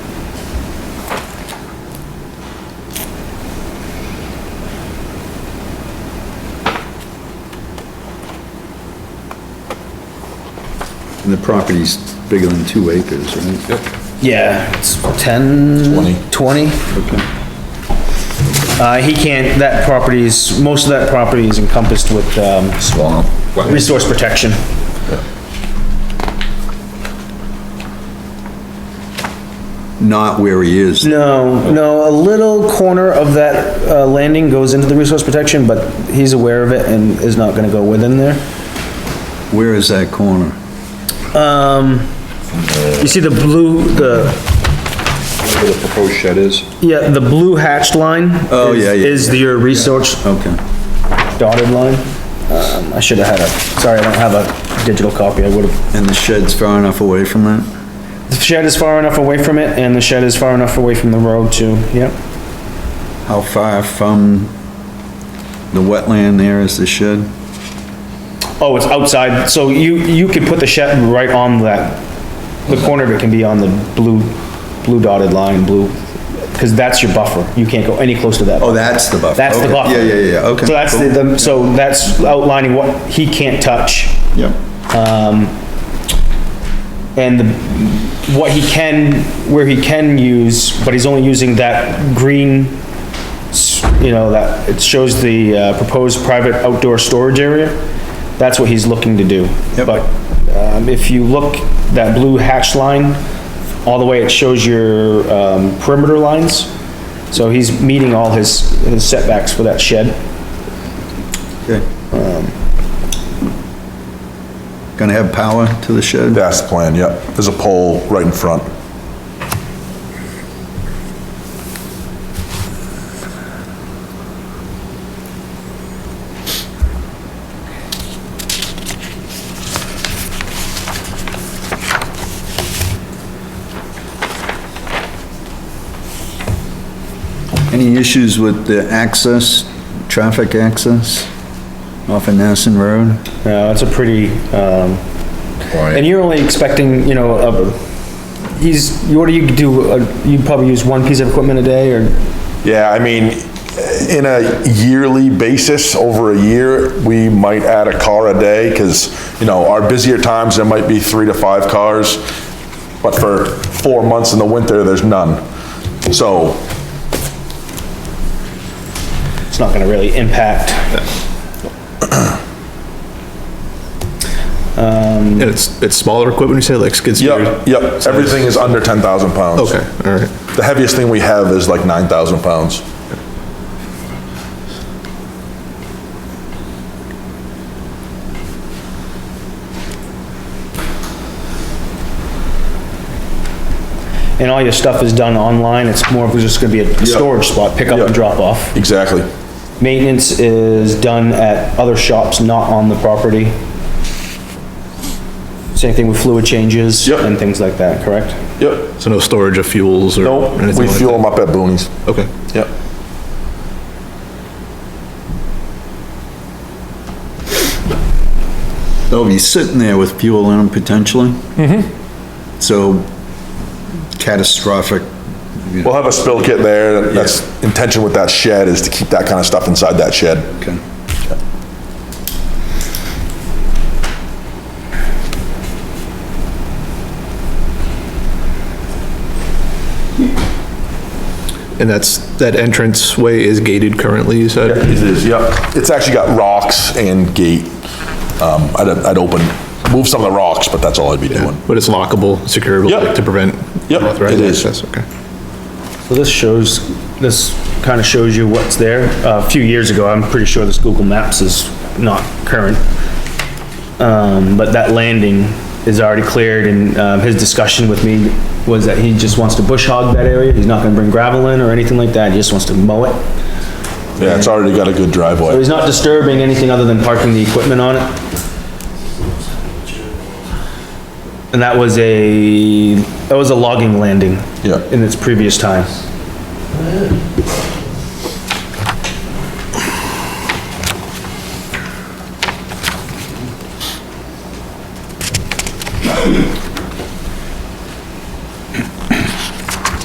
And the property's bigger than two acres, right? Yeah, it's 10? 20. 20? Uh, he can't, that property's, most of that property is encompassed with, um, Swamp. resource protection. Not where he is. No, no, a little corner of that, uh, landing goes into the resource protection, but he's aware of it and is not gonna go within there. Where is that corner? You see the blue, the, Where the proposed shed is? yeah, the blue hatched line? Oh, is- yeah, yeah, Is your resource Okay. dotted line. Um, I should've had a, sorry, I don't have a digital copy, I would've And the shed's far enough away from that? The shed is far enough away from it, and the shed is far enough away from the road too, yep. How far from the wetland there is the shed? Oh, it's outside, so you, you could put the shed right on that, the corner of it can be on the blue, blue dotted line, blue, because that's your buffer, you can't go any close to that. Oh, that's the buffer. That's the Okay. buffer. Yeah, yeah, yeah, okay. So that's the- the, so that's outlining what he can't touch. Yep. And the- what he can, where he can use, but he's only using that green, s- you know, that, it shows the uh, proposed private outdoor storage area. That's what he's looking to do. Yep. But um, if you look, that blue hatch line, all the way, it shows your um, perimeter lines. So he's meeting all his his setbacks for that shed. Okay. Um, Gonna have power to the shed? That's the plan, yep. There's a pole right in front. Any issues with the access, traffic access off of Nassen Road? No, Uh, it's a pretty, um, and you're only expecting, you know, a, he's, you- what do you do, uh, you probably use one piece of equipment a day, or, Yeah, I mean, in a yearly basis, over a year, we might add a car a day because, you know, our busier times, there might be three to five cars. But for four months in the winter, there's none. So it's not gonna really impact. And it's, it's smaller equipment, you say, like skid steers? Yep, yep, everything is under 10,000 pounds. Okay, all right. The heaviest thing we have is like 9,000 pounds. And all your stuff is done online, it's more of just gonna be a storage spot, pick up Yeah. and drop off. Exactly. Maintenance is done at other shops, not on the property. Same thing with fluid changes Yep. and things like that, correct? Yep. So no storage of fuels or? No, anything we like fuel them up at Boonies. that? Okay. Yep. They'll be sitting there with fuel in them potentially? Mm-hmm. So catastrophic, We'll have a spill kit there. That's intention with that shed is to keep that kind of stuff inside that shed. okay. And that's, that entrance way is gated currently, you said? is, yep. It's actually got rocks and gate. Um, I'd, I'd open, move some of the rocks, but that's all I'd be doing. But it's lockable, secureable Yep. like, to prevent? Yep, unauthorized it is. access, Okay. So this shows, this kind of shows you what's there. Uh, A few years ago, I'm pretty sure this Google Maps is not current. Um, but that landing is already cleared and, um, his discussion with me was that he just wants to bush hog that area. He's not gonna bring gravel in or anything like that. He just wants to mow it. Yeah, it's already got a good So driveway. he's not disturbing anything other than parking the equipment on it. And that was a, that was a logging landing. Yeah. In its previous time.